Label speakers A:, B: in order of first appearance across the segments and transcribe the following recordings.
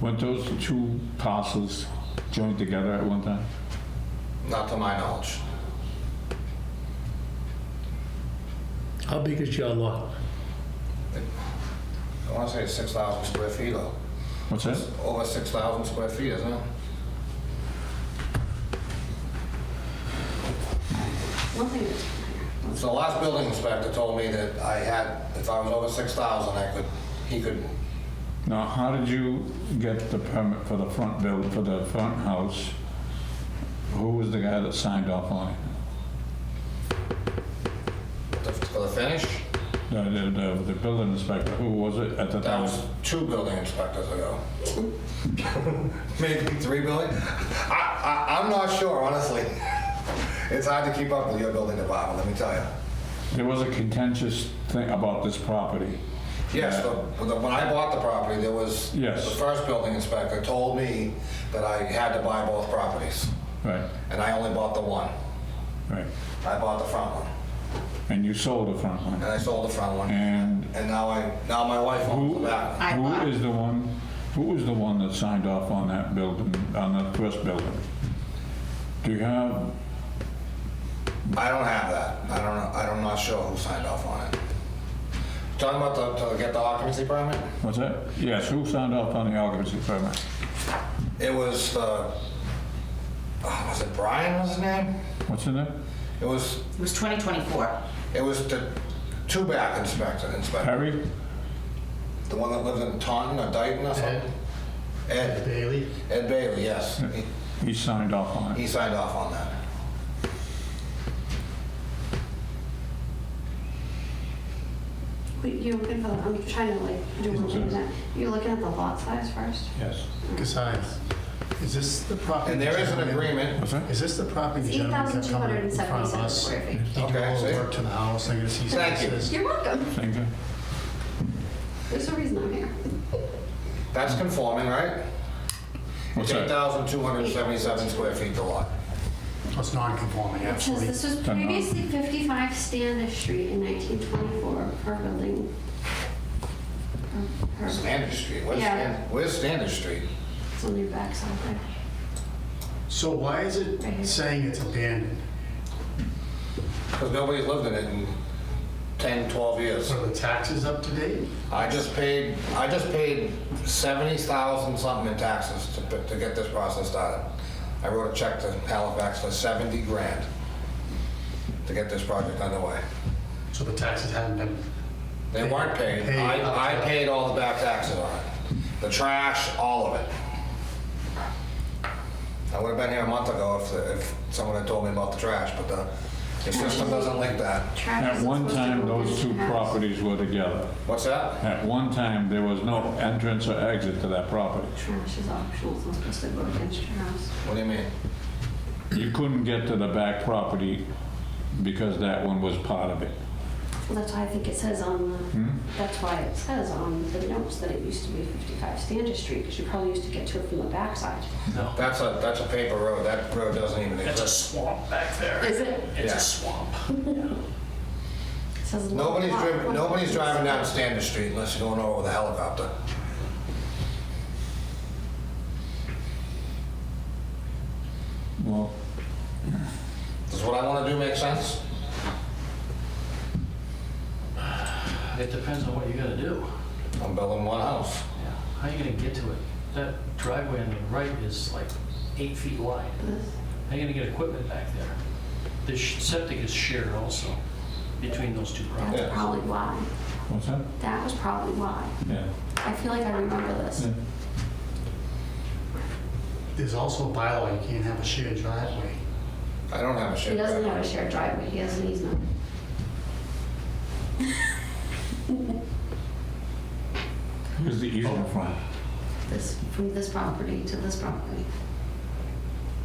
A: Weren't those two parcels joined together at one time?
B: Not to my knowledge.
C: How big is your lot?
B: I want to say it's 6,000 square feet, or
A: What's that?
B: over 6,000 square feet, isn't it?
D: One thing that's
B: So the last building inspector told me that I had, if I was over 6,000, I could, he could,
A: Now, how did you get the permit for the front build, for the front house? Who was the guy that signed off on it?
B: for the finish,
A: The, the- the, the building inspector, who was it at the
B: that
A: time?
B: was two building inspectors ago. Maybe three building? I, I, I'm not sure, honestly. It's hard to keep up with your building department, let me tell you.
A: There was a contentious thing about this property.
B: Yes,
A: Yeah.
B: the- the- when I bought the property, there was, the
A: Yes.
B: first building inspector told me that I had to buy both properties,
A: Right,
B: and I only bought the one.
A: right.
B: I bought the front one,
A: And you sold the front one.
B: and I sold the front one,
A: And
B: and now I, now my wife owns
A: who,
B: the back one.
A: who is the one, who was the one that signed off on that building, on that first building? Do you have,
B: I don't have that, I don't know, I'm not sure who signed off on it. Talking about the, to get the occupancy permit?
A: what's that? Yes, who signed off on the occupancy permit?
B: It was, uh, ah, was it Brian was his name?
A: What's in there?
B: It was,
E: It was 2024.
B: it was the two-back inspector, inspector.
A: Perry?
B: The one that lives in Taunton or Dayton or something? Ed,
C: Bailey?
B: Ed Bailey, yes. He-
A: He signed off on
B: He
A: it.
B: signed off on that.
D: Wait, you looking for, the- I'm trying to like do one thing that, you're looking at the lot size first?
A: Yes.
C: Besides, is this the property?
B: And there is an agreement,
A: What's that?
C: Is this the property the
D: It's
C: gentleman kept coming in front of
D: 8,277
C: us?
D: square feet.
C: He did all
B: Okay,
C: the
B: see?
C: work to the house, I guess he's.
B: Thank you.
C: says-
D: You're welcome.
A: Same thing?
D: There's a reason I'm here.
B: that's conforming, right?
A: What's
B: It's
A: that?
B: 8,277 square feet to lot.
C: It's non-conforming,
D: It says
C: absolutely.
D: this was
A: Done now.
D: previously 55 Standish Street in 1924 per building. per- per-
B: Standish Street, where's
D: Yeah.
B: Standish, where's Standish Street?
D: It's on your back somewhere.
C: So why is it
D: Right here.
C: saying it's abandoned
B: Because nobody's lived in it in 10, 12 years.
C: So the taxes up to date?
B: I just paid, I just paid 70,000 something in taxes to, put- to get this process started. I wrote a check to Halifax for 70 grand to get this project underway.
C: So the taxes haven't been,
B: They weren't paid.
C: Paid up
B: I, I
C: to-
B: paid all the back taxes on it. The trash, all of it. I would have been here a month ago if, the- if someone had told me about the trash, but the, the system doesn't link that.
D: Travis
A: At
D: is
A: one
D: supposed to
A: time,
D: go
A: those
D: in
A: two
D: the house.
A: properties were together.
B: What's that?
A: At one time, there was no entrance or exit to that property.
D: Trash is optional, it's not supposed to go against your house.
B: What do you mean?
A: You couldn't get to the back property because that one was part of it.
D: Well, That's why I think it says on the,
A: Hmm?
D: that's why it says on the notes that it used to be 55 Standish Street, because you probably used to get to it from the backside.
B: That's a, that's a paper road. That road doesn't even
F: It's a
B: exist.
F: swamp back there.
D: Is it?
F: It's
B: Yeah.
F: a swamp.
D: It says.
B: Nobody's
D: lot-
B: driven,
D: lot-
B: nobody's driving down Standish Street unless you're going over with a helicopter.
A: Well,
B: Does what I want to do make sense?
F: It depends on what you gotta do.
B: I'm building one house.
F: Yeah. How you gonna get to it? That driveway on the right is like eight feet wide. How you gonna get equipment back there? The sh- septic is shared also between those two properties.
B: Yeah.
D: That's probably why.
A: what's that?
D: That was probably why.
A: Yeah.
D: I feel like I remember this.
A: yeah.
C: there's also a bylaw, you can't have a shared driveway.
B: I don't have a
D: He
B: shared
D: doesn't have a
B: driveway.
D: shared driveway, he has an easement.
A: Here's the easement from.
D: This, from this property to this property.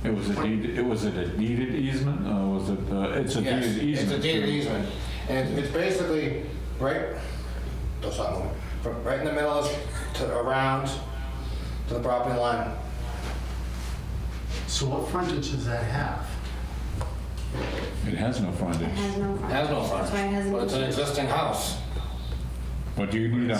A: It was a deed, it was it a deeded easement or was it, uh, it's a
B: Yes,
A: deeded
B: it's
A: easement?
B: a deed of easement. And it's basically right, don't stop moving, From right in the middle is to around to the property line.
C: So what frontage does that have?
A: It has no
D: It
A: frontage,
D: has no
B: It
D: frontage.
B: Has no
D: That's why it
B: frontage,
D: has an
B: but it's an
D: easement.
B: existing house.
A: but you need a